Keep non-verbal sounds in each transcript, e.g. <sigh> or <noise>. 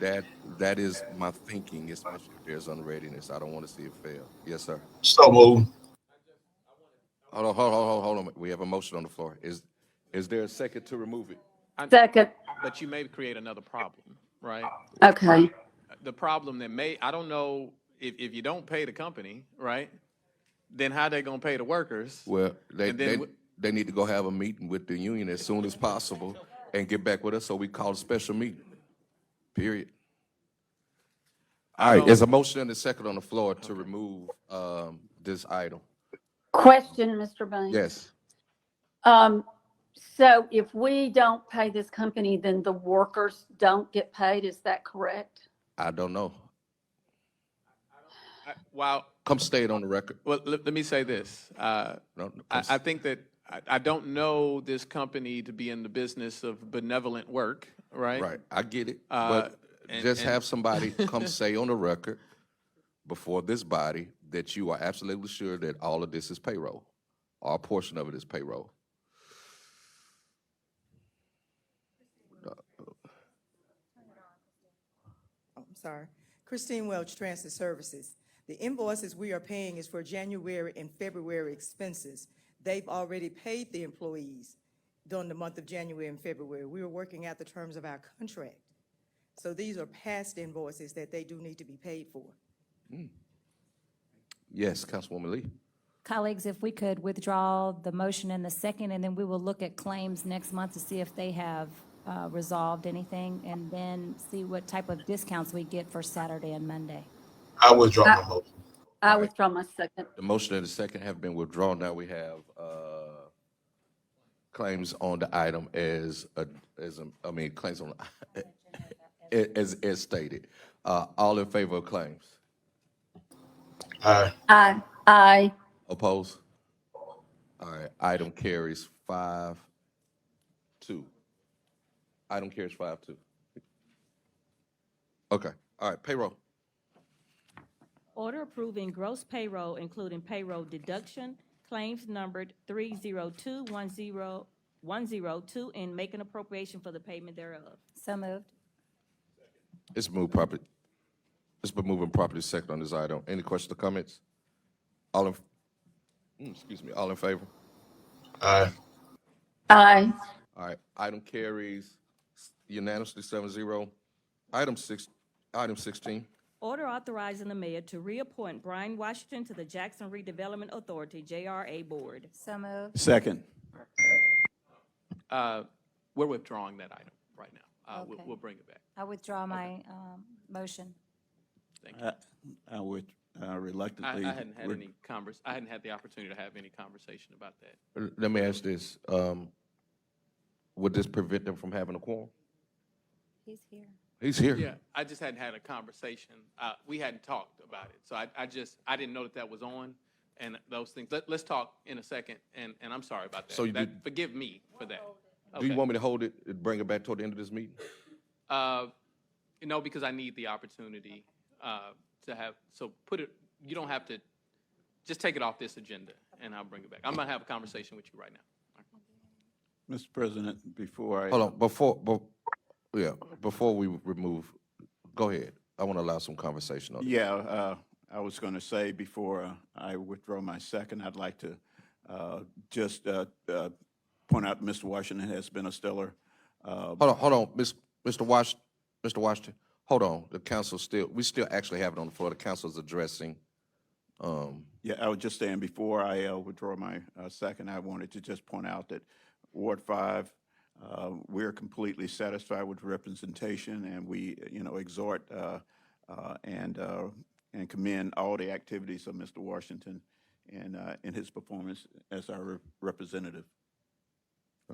That that is my thinking. It's my there's unreadiness. I don't want to see it fail. Yes, sir. So move. Hold on, hold on, hold on, hold on. We have a motion on the floor. Is is there a second to remove it? Second. But you may create another problem, right? Okay. The problem that may, I don't know, if, if you don't pay the company, right? Then how they gonna pay the workers? Well, they And then they, w- they need to go have a meeting with the union as soon as possible and get back with us. So we call a special meeting. Period. All right. There's a motion and a second on the floor to remove um, this item. Question, Mr. Banks? Yes. Um, so if we don't pay this company, then the workers don't get paid, is that correct? I don't know. I- While, Come state on the record. well, let, let me say this, uh, No, no, I, come I think that, I, I don't know this company to be in the business of benevolent work, right? Right, I get it, Uh, but and- just and- have <laughs> somebody come say on the record before this body that you are absolutely sure that all of this is payroll, or a portion of it is payroll. Oh, I'm sorry. Christine Welch, Transit Services. The invoices we are paying is for January and February expenses. They've already paid the employees during the month of January and February. We were working out the terms of our contract. So these are past invoices that they do need to be paid for. Yes, Councilwoman Lee. Colleagues, if we could withdraw the motion and the second, and then we will look at claims next month to see if they have uh, resolved anything, and then see what type of discounts we get for Saturday and Monday. I withdraw my motion. I withdraw my second. The motion and the second have been withdrawn. Now we have, uh, claims on the item as, a- as, a- I mean, claims on, <laughs> a- as, as stated. Uh, all in favor of claims? Aye. Aye. Aye. Oppose? All right, item carries five, two. Item carries five, two. Okay, all right, payroll. Order approving gross payroll, including payroll deduction, claims numbered 30210102, and making appropriation for the payment thereof. So moved. It's moved properly. It's been moving properly second on this item. Any questions or comments? All in, mm, excuse me, all in favor? Aye. Aye. All right, item carries unanimously seven zero. Item six, item sixteen. Order authorizing the mayor to reappoint Brian Washington to the Jackson Redevelopment Authority, JRA Board. So moved. Second. Uh, we're withdrawing that item right now. Uh, we'll, Okay. we'll bring it back. I withdraw my um, motion. I I would uh, I, reluctantly. I hadn't had would- any convers, I hadn't had the opportunity to have any conversation about that. L- Let me ask this, um, would this prevent them from having a quorum? He's here. He's here. Yeah, I just hadn't had a conversation. Uh, we hadn't talked about it. So I, I just, I didn't know that that was on and those things. Let, let's talk in a second, and, and I'm sorry about that. So you That- did- Forgive me for that. Do you Okay. want me to hold it, and bring it back toward the end of this meeting? Uh, no, because I need the opportunity, uh, to have, so put it, you don't have to, just take it off this agenda, and I'll bring it back. I'm gonna have a conversation with you right now. Mr. President, before I. Hold on, before, bef- yeah, before we remove, go ahead. I want to allow some conversation on it. Yeah, uh, I was going to say before uh, I withdraw my second, I'd like to uh, just uh, uh, point out Mr. Washington has been a stellar. uh, Hold on, hold on, Miss, Mr. Wash, Mr. Washington, hold on. The council still, we still actually have it on the floor. The council's addressing, um, Yeah, I was just saying, before I uh, withdraw my uh, second, I wanted to just point out that Ward 5, uh, we're completely satisfied with representation, and we, you know, exhort uh, uh, and, uh, and commend all the activities of Mr. Washington and, uh, and his performance as our rep- representative.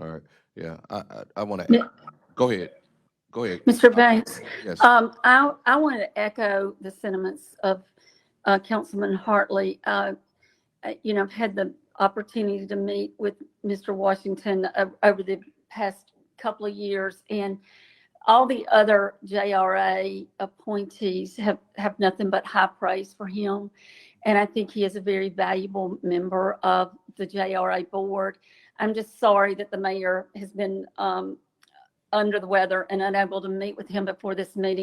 all right, yeah, I, I, I want to, go ahead, go ahead. Mr. Banks? Yes, Um, I, I want to echo the sentiments of, uh, Councilman Hartley. Uh, uh, you know, I've had the opportunity to meet with Mr. Washington o- over the past couple of years and all the other JRA appointees have, have nothing but high praise for him. And I think he is a very valuable member of the JRA board. I'm just sorry that the mayor has been, um, under the weather and unable to meet with him before this meeting.